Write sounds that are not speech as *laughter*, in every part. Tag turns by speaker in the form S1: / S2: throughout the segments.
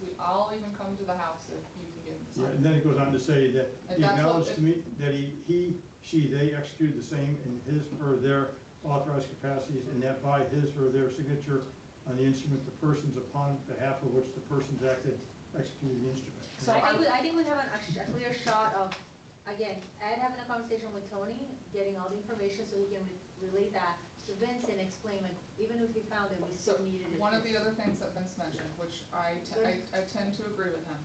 S1: We all even come to the house if you can get
S2: Right,
S1: this.
S2: and then it goes on to say that
S1: And
S2: he
S1: that's what-
S2: acknowledged to me that he, he, she, they execute the same in his or their authorized capacities and that by his or their signature on the instrument, the persons upon behalf of which the persons acted executed the instrument.
S1: So
S3: I
S1: I-
S3: think, we- I think we have an- a sh- a clear shot of, again, Ed having a conversation with Tony, getting all the information so he can re- relay that to Vince and explain, like, even if he found it, we
S1: So
S3: still needed it.
S1: one of the other things that Vince mentioned, which I, t- I- I tend to agree with him,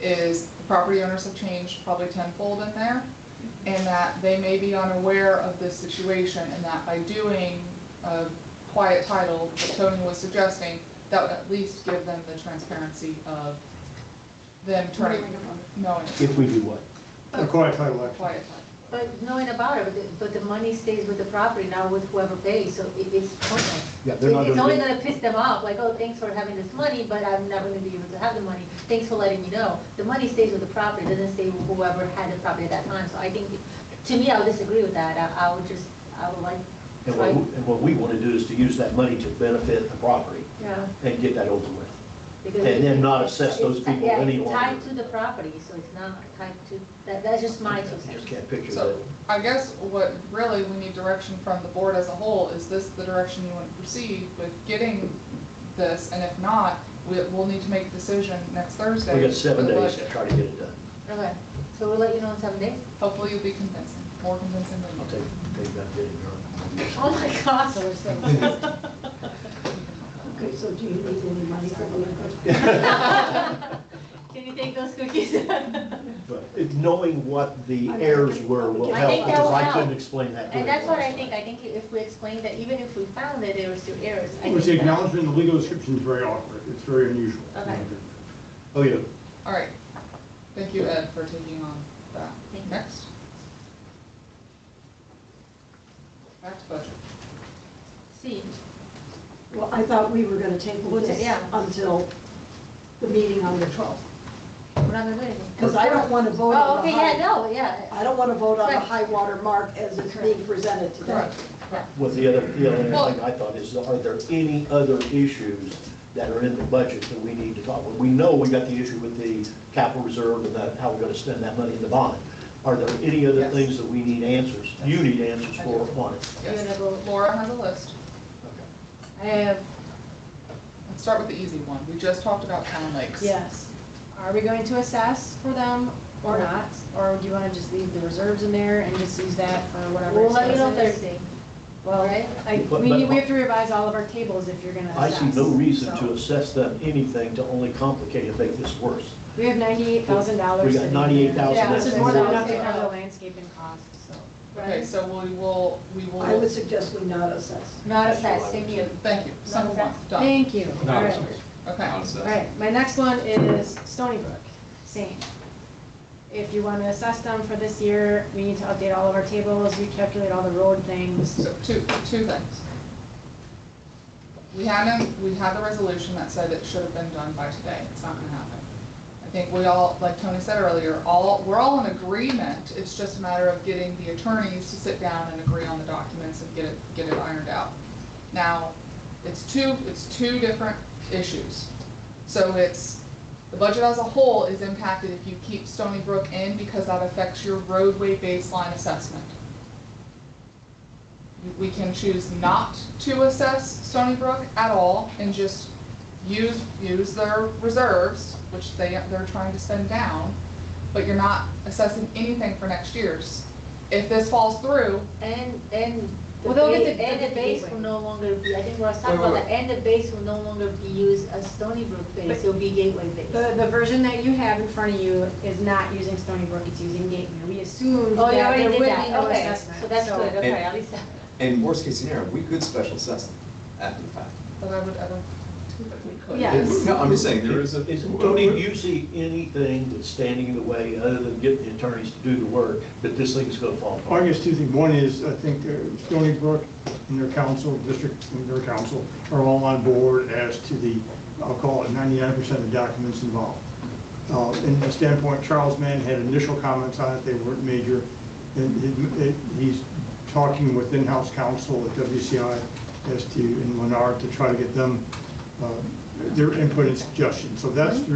S1: is the property owners have changed probably tenfold in there, and that they may be unaware of this situation, and that by doing a quiet title that Tony was suggesting, that would at least give them the transparency of them turning, knowing it's
S4: If we do what?
S2: A quiet title
S1: a
S2: action.
S1: quiet title.
S3: But knowing about it, but the- but the money stays with the property, not with whoever pays, so it- it's pointless.
S4: Yeah,
S3: It-
S4: they're not
S3: It's
S4: gonna
S3: only
S4: be-
S3: gonna piss them off, like, oh, thanks for having this money, but I'm not gonna be able to have the money, thanks for letting me know. The money stays with the property, doesn't stay with whoever had the property at that time, so I think, to me, I would disagree with that, I I would just, I would like,
S4: And what, we- and what we want to do is to use that money to benefit the property
S3: yeah.
S4: and get that over with.
S3: Because
S4: And then
S3: it-
S4: not assess those
S3: it's-
S4: people
S3: yeah,
S4: any
S3: it's
S4: longer.
S3: tied to the property, so it's not tied to, that, that's just my two
S4: I Just
S3: cents.
S4: can't picture
S1: So
S4: that.
S1: I guess what really we need direction from the board as a whole, is this the direction you want to proceed with getting this? And if not, we, we'll need to make a decision next Thursday.
S4: We got seven
S1: But
S4: days to try to get it done.
S3: Okay, so we'll let you know in seven days?
S1: Hopefully you'll be convincing, more convincing than me.
S4: I'll take, take that bid and
S3: Oh my gosh, so we're
S4: *laughs*
S3: so.
S5: Okay, so do you need any money for the
S3: Can you take those cookies? *laughs* And
S4: But it- knowing what the errors were will
S3: I
S4: help,
S3: think that
S4: because
S3: will
S4: I couldn't
S3: help.
S4: explain that to him.
S3: that's what I
S4: last
S3: think,
S4: time.
S3: I think if we explain that even if we found that there were still errors, I
S2: It
S3: think
S2: was the
S3: that.
S2: acknowledgement, the legal description is very awkward, it's very unusual.
S3: Okay.
S4: Oh, yeah.
S1: All right. Thank you, Ed, for taking on that.
S3: Thank you.
S1: Next. Back to budget.
S3: See,
S5: *laughs* Well, I thought we were gonna table
S3: Well,
S5: this
S3: yeah.
S5: until the meeting on the 12th,
S3: we're not gonna do anything.
S5: because I don't want to vote
S3: Oh,
S5: on
S3: okay,
S5: the
S3: yeah,
S5: high,
S3: no, yeah.
S5: I don't want to vote on the
S3: Right.
S5: high water mark as it's being presented today.
S4: Well, the other, the other
S1: Well-
S4: thing I thought is, are there any other issues that are in the budget that we need to talk about? We know we got the issue with the capital reserve and that, how we're gonna spend that money in the bond. Are there any other
S1: Yes.
S4: things that we need answers, you need answers
S1: I
S4: for
S1: do.
S4: on it?
S3: You're gonna
S1: Yes.
S3: go-
S1: Laura has a list.
S3: I have
S1: Let's start with the easy one. We just talked about town lakes.
S6: Yes. Are we going to assess for them or not? Or do you want to just leave the reserves in there and just use that for whatever?
S3: We'll let you know
S6: expenses?
S3: Thursday,
S6: Well,
S3: right?
S6: I,
S4: But-
S6: we need,
S4: but-
S6: we have to revise all of our tables if you're gonna
S4: I
S6: assess.
S4: see no reason to
S6: so.
S4: assess them anything to only complicate and make this worse.
S6: We have ninety-eight thousand dollars.
S4: We got $98,000
S6: Yeah, which is more than enough to
S1: Yeah.
S6: cover the landscaping costs, so.
S1: Okay,
S3: right?
S1: so we will, we will.
S5: I would suggest we not assess.
S3: Not
S4: That's what I
S3: assessed,
S4: would
S3: thank you.
S1: Thank you. Simple one, done.
S6: Thank you. All
S7: Not
S6: right.
S7: assessed.
S1: Okay.
S7: Not
S6: All
S7: assessed.
S6: right, my next one is Stony Brook, same. If you want to assess them for this year, we need to update all of our tables, recalculate all the road things.
S1: So two, two things. We had a, we had the resolution that said it should have been done by today. It's not gonna happen. I think we all, like Tony said earlier, all, we're all in agreement. It's just a matter of getting the attorneys to sit down and agree on the documents and get it, get it ironed out. Now, it's two, it's two different issues. So it's, the budget as a whole is impacted if you keep Stony Brook in because that affects your roadway baseline assessment. We can choose not to assess Stony Brook at all and just use, use their reserves, which they, they're trying to spend down, but you're not assessing anything for next year's. If this falls through,
S3: And, and the
S6: Well, they'll
S3: base,
S6: get the-
S3: and the base will no longer be, I think we're talking about that, and the base will no longer be used as Stony Brook base,
S6: But-
S3: it'll be Gateway base.
S6: The, the version that you have in front of you is not using Stony Brook, it's using Gateway. We assumed
S3: Oh, you
S6: that
S3: already
S6: there would
S3: did
S6: be
S3: that,
S6: no
S3: okay,
S6: assessment.
S3: so that's good, okay, at least, that-
S7: And worst case scenario, we could special assess them after the fact.
S1: but I would, I don't think that we could.
S6: Yeah.
S7: It's- No, I'm just saying, there is a.
S4: Is- Tony, do you see anything that's standing in the way, other than getting the attorneys to do the work, that this thing's gonna fall
S2: Well, I
S4: apart?
S2: guess two things. One is, I think uh, Stony Brook and their council, district and their council are all on board as to the, I'll call it 99% of the documents involved. Uh, In the standpoint, Charles Mann had initial comments on it, they weren't major. And he- he's talking with in-house counsel at WCI as to, and Lennar to try to get them uh, their input and suggestions. So that's the